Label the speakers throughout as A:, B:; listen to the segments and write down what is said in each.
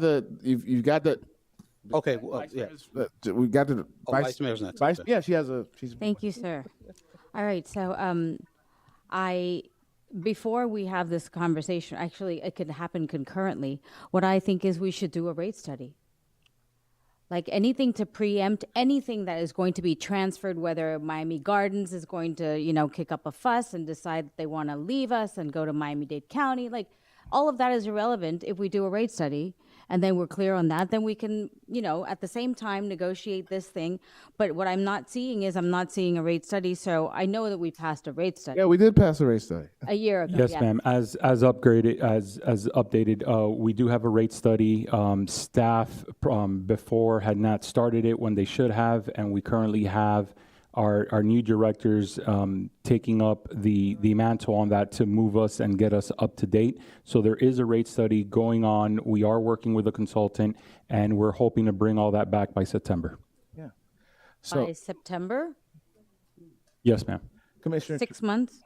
A: the you've, you've got the
B: Okay, well, yeah.
A: the- we got the
B: Oh, Vice Mayor's next,
A: Vice,
B: okay.
A: yeah, she has a. She's
C: Thank you, sir. All right, so um, I, before we have this conversation, actually, it could happen concurrently. What I think is we should do a rate study. Like anything to preempt anything that is going to be transferred, whether Miami Gardens is going to, you know, kick up a fuss and decide that they want to leave us and go to Miami Dade County. Like all of that is irrelevant if we do a rate study and then we're clear on that, then we can, you know, at the same time negotiate this thing. But what I'm not seeing is I'm not seeing a rate study. So I know that we passed a rate study
A: yeah. We did pass a race study.
C: a year ago.
D: Yes,
C: yeah.
D: ma'am. As as upgraded as as updated, uh, we do have a rate study. Um, staff um, before had not started it when they should have, and we currently have our our new directors um, taking up the the mantle on that to move us and get us up to date. So there is a rate study going on. We are working with a consultant, and we're hoping to bring all that back by September.
C: By September,
D: Yes, ma'am.
A: Commissioner,
C: six months.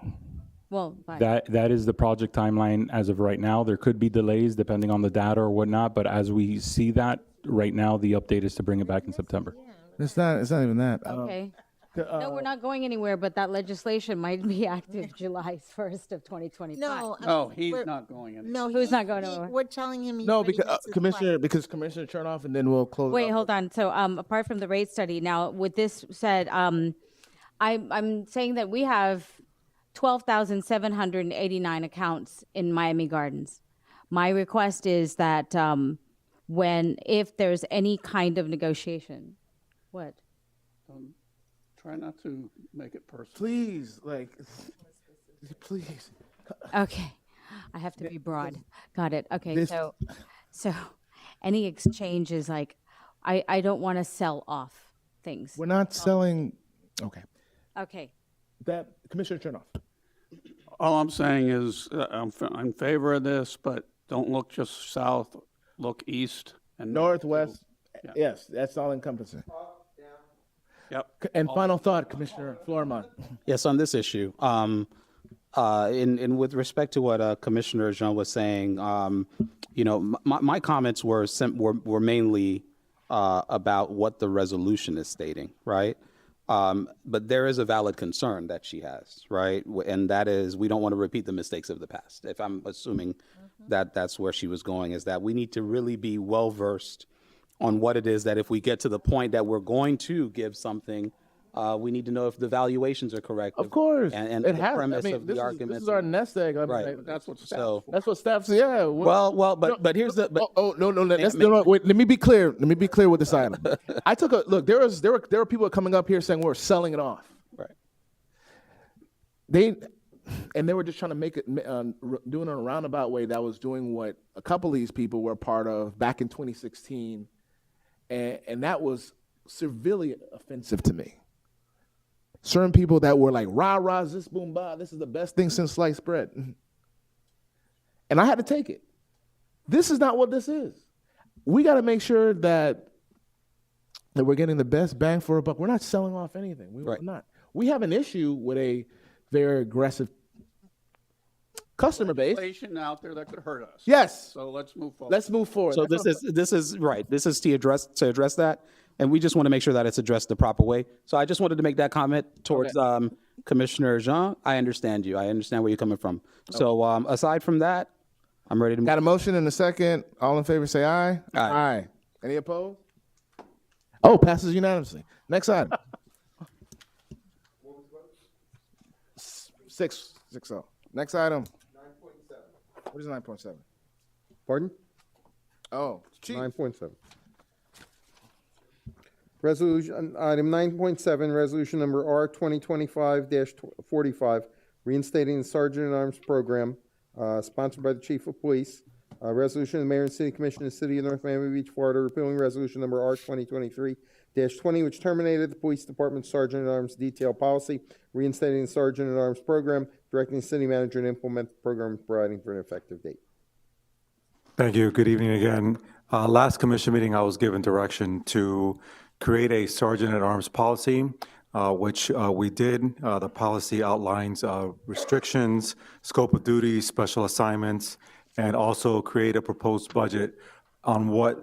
C: Well, by
D: That that is the project timeline as of right now. There could be delays depending on the data or whatnot, but as we see that right now, the update is to bring it back in September.
A: it's not. It's not even that. Um,
C: okay. no, we're not going anywhere, but that legislation might be active July 1st of 2025.
E: No. I
F: No,
E: mean,
F: he's
E: we're-
F: not going in.
E: No,
C: Who's
E: he-
C: not going
E: he-
C: nowhere?
E: We're telling him. he's
A: no,
E: ready
A: because
E: to
A: uh,
E: supply.
A: Commissioner, because Commissioner Chernoff, and then we'll close.
C: Wait,
A: up.
C: hold on. So, um, apart from the rate study, now with this said, um, I, I'm saying that we have 12,789 accounts in Miami Gardens. My request is that um, when, if there's any kind of negotiation, what?
F: Try not to make it personal.
A: please, like, please.
C: Okay. I have to be broad. Got it. Okay.
A: this-
C: So, so any exchange is like, I, I don't want to sell off things.
A: We're not selling. Okay,
C: Okay.
A: that Commissioner Chernoff.
F: All I'm saying is, uh, I'm, f- I'm in favor of this, but don't look just south, look east and.
A: Northwest. Yes, that's all encompassing.
F: Yep.
A: And final thought, Commissioner Flormont.
B: Yes, on this issue, um, uh, in, in with respect to what uh, Commissioner Jean was saying, um, you know, m- my, my comments were sim- were, were mainly uh, about what the resolution is stating, right? Um, but there is a valid concern that she has, right? W- And that is, we don't want to repeat the mistakes of the past. If I'm assuming that that's where she was going, is that we need to really be well versed on what it is that if we get to the point that we're going to give something, uh, we need to know if the valuations are correct.
A: Of course,
B: And, and
A: it
B: the
A: has.
B: premise
A: I mean,
B: of
A: this
B: the
A: is,
B: argument.
A: This is our nest egg. I mean,
B: Right.
A: like,
F: That's what's.
B: so,
A: that's what staffs. Yeah. we're-
B: well, well, but, but here's the, but,
A: oh, oh no no that's, no no wait let me be clear let me be clear with this item. I took a look. There was there were there were people coming up here saying we're selling it off.
B: right.
A: They and they were just trying to make it uh, r- doing it in a roundabout way that was doing what a couple of these people were part of back in 2016, and and that was severely offensive to me. Certain people that were like rah rah this boom bah this is the best thing since sliced bread, and I had to take it. This is not what this is we got to make sure that that we're getting the best bang for a buck. We're not selling off anything. We,
B: Right.
A: We're not. We have an issue with a very aggressive customer base.
F: Inflation out there that could hurt us.
A: Yes.
F: So let's move forward.
A: Let's move forward.
B: So this is, this is, right, this is to address, to address that. And we just want to make sure that it's addressed the proper way. So I just wanted to make that comment towards, um, Commissioner Jean. I understand you. I understand where you're coming from. So, um, aside from that, I'm ready to move.
A: got a motion and a second. All in favor, say aye.
B: Aye.
A: Any opposed? Oh, passes unanimously. Next item. S- six six oh. Next item. Nine point seven. What is nine point seven?
G: Pardon?
A: Oh, chief.
G: Nine point seven. Resolution, item nine point seven, resolution number R twenty twenty-five forty-five, reinstating the Sergeant at Arms program, uh, sponsored by the Chief of Police. Uh, resolution of the Mayor and City Commission of the City of North Miami Beach, Florida, repealing resolution number R twenty twenty-three twenty, which terminated the Police Department Sergeant at Arms detail policy, reinstating the Sergeant at Arms program, directing the city manager to implement the program, and providing for an effective date.
H: Thank you. Good evening again. Uh, Last commission meeting, I was given direction to create a sergeant at arms policy, uh, which uh, we did. Uh, The policy outlines uh, restrictions, scope of duties, special assignments, and also create a proposed budget on what